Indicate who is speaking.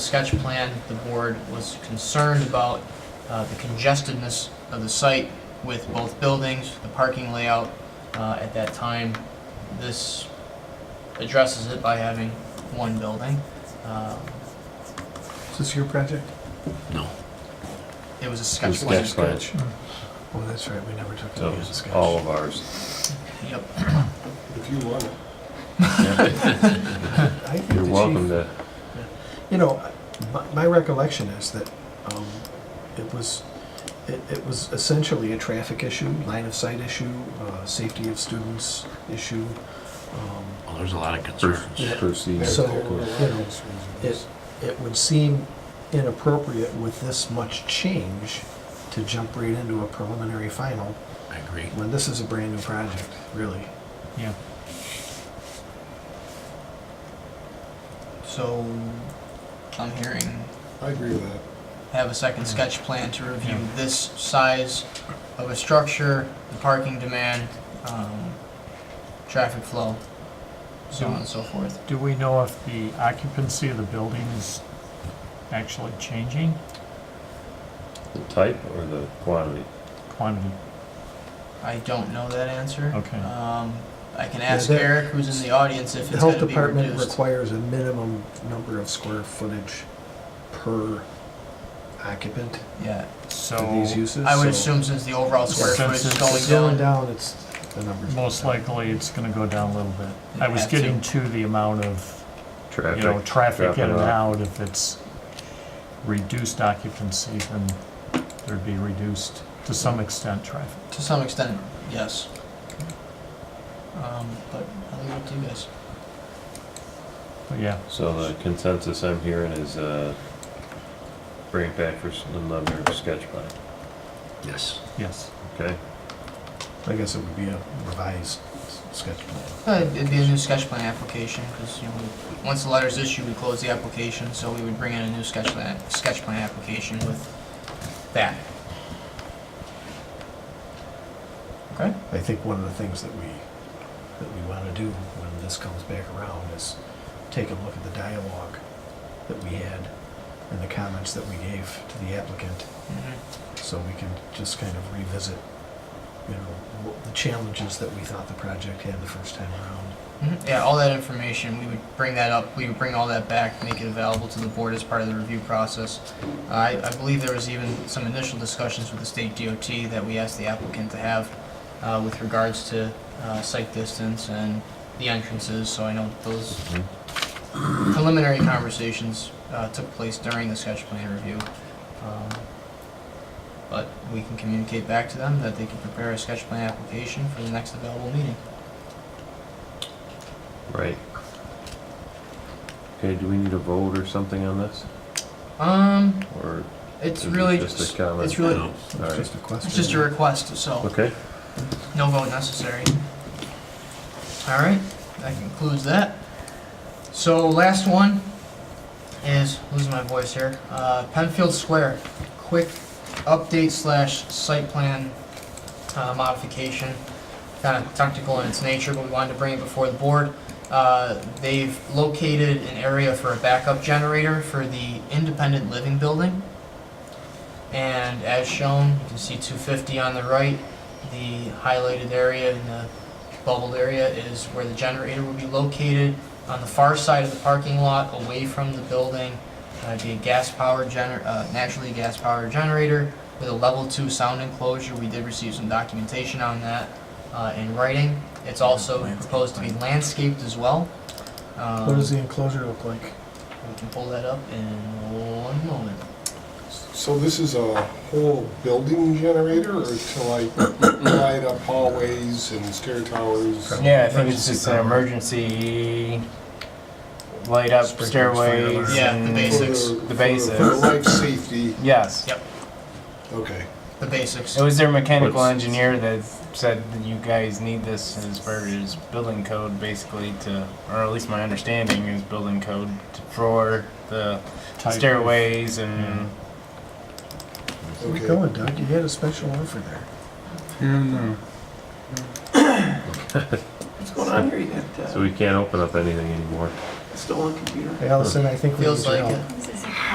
Speaker 1: sketch plan, the board was concerned about uh, the congestedness of the site with both buildings, the parking layout. Uh, At that time, this addresses it by having one building. Uh,
Speaker 2: Is this your project?
Speaker 3: No.
Speaker 1: It was a sketch
Speaker 3: It's
Speaker 1: plan.
Speaker 3: sketch plan.
Speaker 2: Oh, that's right, we never took
Speaker 3: So
Speaker 2: the use of sketch.
Speaker 3: all of ours.
Speaker 1: Yep.
Speaker 4: If you want it.
Speaker 2: I think
Speaker 3: You're
Speaker 2: the chief-
Speaker 3: welcome to,
Speaker 2: You know, my, my recollection is that, um, it was, it, it was essentially a traffic issue, line of sight issue, uh, safety of students issue. Um,
Speaker 5: Well, there's a lot of concerns.
Speaker 3: pers- proceed.
Speaker 2: So-
Speaker 4: There are lots of
Speaker 2: It,
Speaker 4: reasons.
Speaker 2: it would seem inappropriate with this much change to jump right into a preliminary final
Speaker 5: I agree.
Speaker 2: when this is a brand new project, really.
Speaker 1: Yeah. So, I'm hearing
Speaker 4: I agree with that.
Speaker 1: have a second
Speaker 2: Mm-hmm.
Speaker 1: sketch plan to review this size of a structure, the parking demand, um, traffic flow, so on and
Speaker 2: Mm-hmm.
Speaker 1: so forth.
Speaker 6: Do we know if the occupancy of the building is actually changing
Speaker 3: The type or the quantity?
Speaker 6: quantity?
Speaker 1: I don't know that answer.
Speaker 6: Okay.
Speaker 1: Um, I can ask
Speaker 2: that-
Speaker 1: Eric, who's in the audience, if
Speaker 2: The
Speaker 1: it's gonna
Speaker 2: health
Speaker 1: be
Speaker 2: department
Speaker 1: reduced.
Speaker 2: requires a minimum number of square footage per occupant
Speaker 1: Yeah,
Speaker 2: for
Speaker 6: So
Speaker 2: these uses.
Speaker 1: I would
Speaker 2: so
Speaker 1: assume since the overall square
Speaker 6: Since
Speaker 1: footage is
Speaker 6: it's
Speaker 1: going down.
Speaker 2: down, it's, the number's.
Speaker 6: most likely it's gonna go down a little bit. I was
Speaker 1: Have to.
Speaker 6: getting to the amount of, you know,
Speaker 3: Traffic?
Speaker 6: traffic in
Speaker 3: traffic
Speaker 6: and
Speaker 3: out.
Speaker 6: out. If it's reduced occupancy, then there'd be reduced, to some extent, traffic.
Speaker 1: To some extent, yes. Um, but I'll leave it to you guys.
Speaker 6: But yeah,
Speaker 3: So the consensus I'm hearing is, uh, bring it back for s- another sketch plan,
Speaker 5: Yes.
Speaker 6: yes.
Speaker 3: okay?
Speaker 2: I guess it would be a revised s- sketch plan.
Speaker 1: Uh, It'd be a new sketch plan application, because, you know, we- once the letter's issued, we close the application, so we would bring in a new sketch plan, sketch plan application with that. Okay?
Speaker 2: I think one of the things that we, that we want to do when this comes back around is take a look at the dialogue that we had and the comments that we gave to the applicant
Speaker 1: Mhm.
Speaker 2: so we can just kind of revisit, you know, wh- the challenges that we thought the project had the first time around.
Speaker 1: Mhm. Yeah, all that information, we would bring that up, we would bring all that back, make it available to the board as part of the review process. I, I believe there was even some initial discussions with the state DOT that we asked the applicant to have uh, with regards to uh, site distance and the entrances, so I know that those preliminary conversations uh, took place during the sketch plan review. Um, But we can communicate back to them that they can prepare a sketch plan application for the next available meeting.
Speaker 3: Right. Okay, do we need a vote or something on this?
Speaker 1: Um,
Speaker 3: Or
Speaker 1: it's
Speaker 3: is it
Speaker 1: really
Speaker 3: just
Speaker 1: just,
Speaker 3: a comment?
Speaker 1: it's really,
Speaker 5: No.
Speaker 3: All
Speaker 2: It's
Speaker 3: right.
Speaker 2: just a question.
Speaker 1: it's just a request, so
Speaker 3: Okay,
Speaker 1: no vote necessary. All right, that concludes that. So last one is, losing my voice here, uh, Penfield Square, quick update slash site plan uh, modification, kind of technical in its nature, but we wanted to bring it before the board. Uh, They've located an area for a backup generator for the independent living building. And as shown, you can see 250 on the right, the highlighted area and the bubbled area is where the generator will be located. On the far side of the parking lot, away from the building, uh, it'd be a gas-powered gener, uh, naturally gas-powered generator with a level two sound enclosure. We did receive some documentation on that, uh, in writing. It's also proposed to be landscaped as well.
Speaker 2: What does
Speaker 1: Um,
Speaker 2: the enclosure look like?
Speaker 1: We can pull that up in one moment.
Speaker 4: So this is a whole building generator or to like light up hallways and stair towers?
Speaker 7: Yeah, I think it's just an emergency light up
Speaker 2: Sprinklers, fire
Speaker 7: stairways.
Speaker 2: alarm.
Speaker 1: Yeah, the
Speaker 7: and-
Speaker 4: For
Speaker 1: basics.
Speaker 4: for
Speaker 7: The basics.
Speaker 4: For life safety,
Speaker 7: Yes.
Speaker 1: Yep.
Speaker 4: okay.
Speaker 1: The basics.
Speaker 7: It was their mechanical
Speaker 3: What's-
Speaker 7: engineer that said that you guys need this as per his building code, basically to, or at least my understanding is building code to- for the
Speaker 6: Type of-
Speaker 7: stairways and.
Speaker 2: Where you
Speaker 4: Okay.
Speaker 2: going, Doug? You had a special offer there.
Speaker 8: What's going on here? You got,
Speaker 3: so
Speaker 8: uh,
Speaker 3: we can't open up anything anymore.
Speaker 8: still on computer?
Speaker 2: Allison, I think we need
Speaker 1: Feels
Speaker 2: your
Speaker 1: like
Speaker 2: help.
Speaker 1: it.
Speaker 9: Is